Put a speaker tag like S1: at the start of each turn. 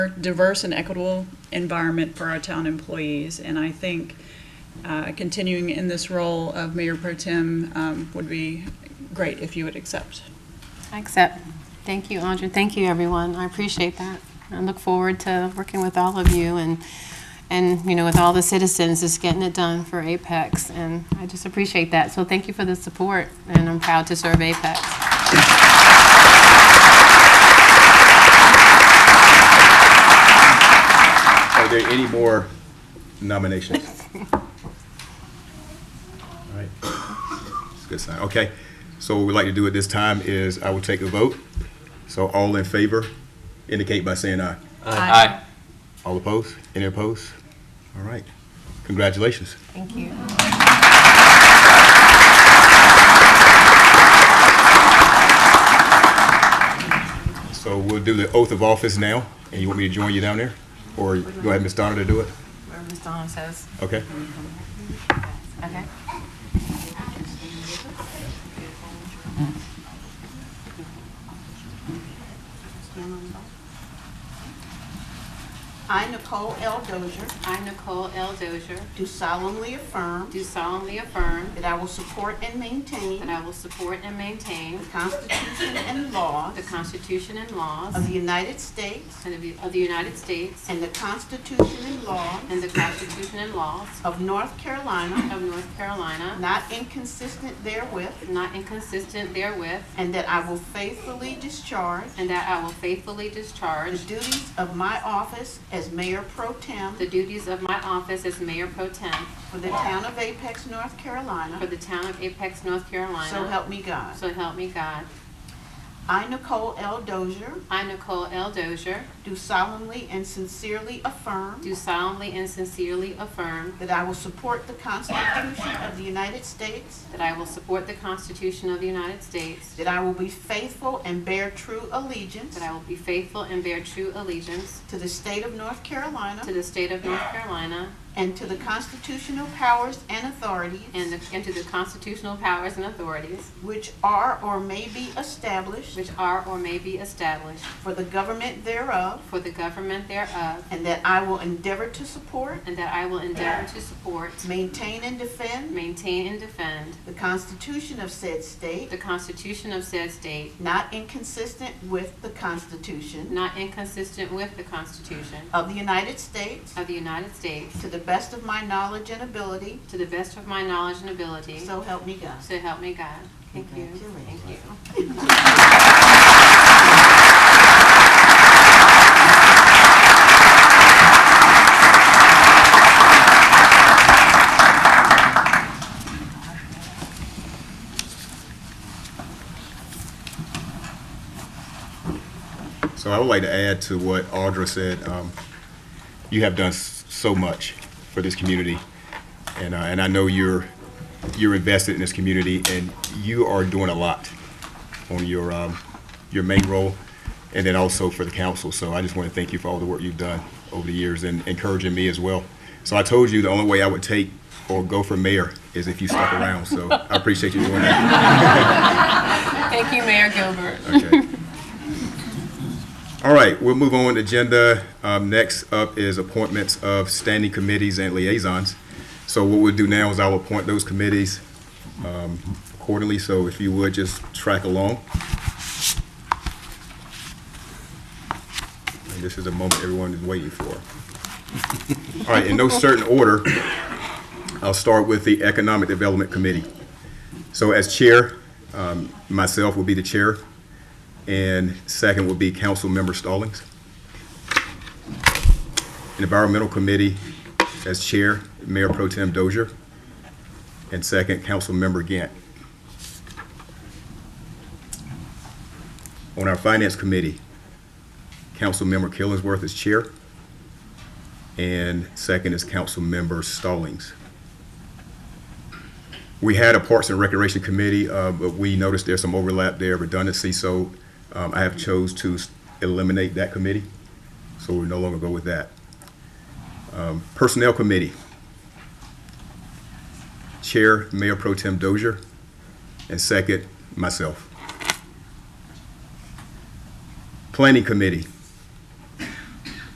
S1: diverse and equitable environment for our town employees. And I think uh, continuing in this role of Mayor Pro Tem um, would be great if you would accept.
S2: I accept. Thank you, Andrea. Thank you, everyone. I appreciate that. I look forward to working with all of you and, and, you know, with all the citizens, just getting it done for Apex. And I just appreciate that. So thank you for the support, and I'm proud to serve Apex.
S3: Are there any more nominations? All right. It's a good sign. Okay. So what we'd like to do at this time is I will take a vote. So all in favor indicate by saying aye.
S4: Aye.
S3: All opposed? Any opposed? All right. Congratulations.
S2: Thank you.
S3: So we'll do the oath of office now. And you want me to join you down there? Or go ahead, Ms. Donna, to do it?
S2: Where Ms. Dawn says,
S3: Okay?
S2: okay?
S5: I, Nicole L. Dozier,
S2: I, Nicole L. Dozier,
S5: do solemnly affirm
S2: do solemnly affirm
S5: that I will support and maintain
S2: that I will support and maintain
S5: the Constitution and laws
S2: the Constitution and laws
S5: of the United States
S2: and of the- of the United States
S5: and the Constitution and laws
S2: and the Constitution and laws
S5: of North Carolina,
S2: of North Carolina,
S5: not inconsistent therewith,
S2: not inconsistent therewith,
S5: and that I will faithfully discharge
S2: and that I will faithfully
S5: the
S2: discharge
S5: duties of my office as Mayor Pro Tem
S2: the duties of my office as Mayor Pro Tem
S5: for the town of Apex, North
S2: for
S5: Carolina.
S2: the town of Apex, North
S5: So
S2: Carolina.
S5: help me God.
S2: So help me God.
S5: I, Nicole L. Dozier,
S2: I, Nicole L. Dozier,
S5: do solemnly and sincerely affirm
S2: do solemnly and sincerely affirm
S5: That I will support the Constitution of the United States.
S2: that I will support the Constitution of the United States,
S5: That I will be faithful and bear true allegiance
S2: that I will be faithful and bear true allegiance
S5: to the state of North Carolina
S2: to the state of North Carolina
S5: and to the constitutional powers and authorities
S2: and the- and to the constitutional powers and authorities
S5: which are or may be established
S2: which are or may be established
S5: for the government thereof.
S2: for the government thereof,
S5: And that I will endeavor to support,
S2: and that I will endeavor to support,
S5: maintain, and defend
S2: maintain, and defend
S5: the Constitution of said
S2: the
S5: state,
S2: Constitution of said state,
S5: not inconsistent with the Constitution
S2: not inconsistent with the Constitution
S5: of the United States,
S2: of the United States,
S5: to the best of my knowledge and ability.
S2: to the best of my knowledge and ability,
S5: So help me God.
S2: so help me God. Thank you. Thank
S5: Congratulations.
S2: you.
S3: So I would like to add to what Audra said. Um, you have done s- so much for this community, and uh, and I know you're you're invested in this community, and you are doing a lot on your um, your main role, and then also for the council. So I just want to thank you for all the work you've done over the years and encouraging me as well. So I told you the only way I would take or go for mayor is if you stuck around. So I appreciate you doing that.
S2: Thank you, Mayor Gilbert.
S3: Okay. All right, we'll move on to agenda. Um, Next up is appointments of standing committees and liaisons. So what we'll do now is I'll appoint those committees um, accordingly, so if you would, just track along. And this is the moment everyone is waiting for. All right, in no certain order, I'll start with the Economic Development Committee. So as chair, um, myself will be the chair, and second will be Councilmember Stallings. Environmental Committee, as chair, Mayor Pro Tem Dozier, and second, Councilmember Gant. On our Finance Committee, Councilmember Killingsworth is chair, and second is Councilmember Stallings. We had a Parks and Recreation Committee, uh, but we noticed there's some overlap there, redundancy, so um, I have chose to s- eliminate that committee, so we no longer go with that. Um, Personnel Committee. Chair, Mayor Pro Tem Dozier, and second, myself. Planning Committee.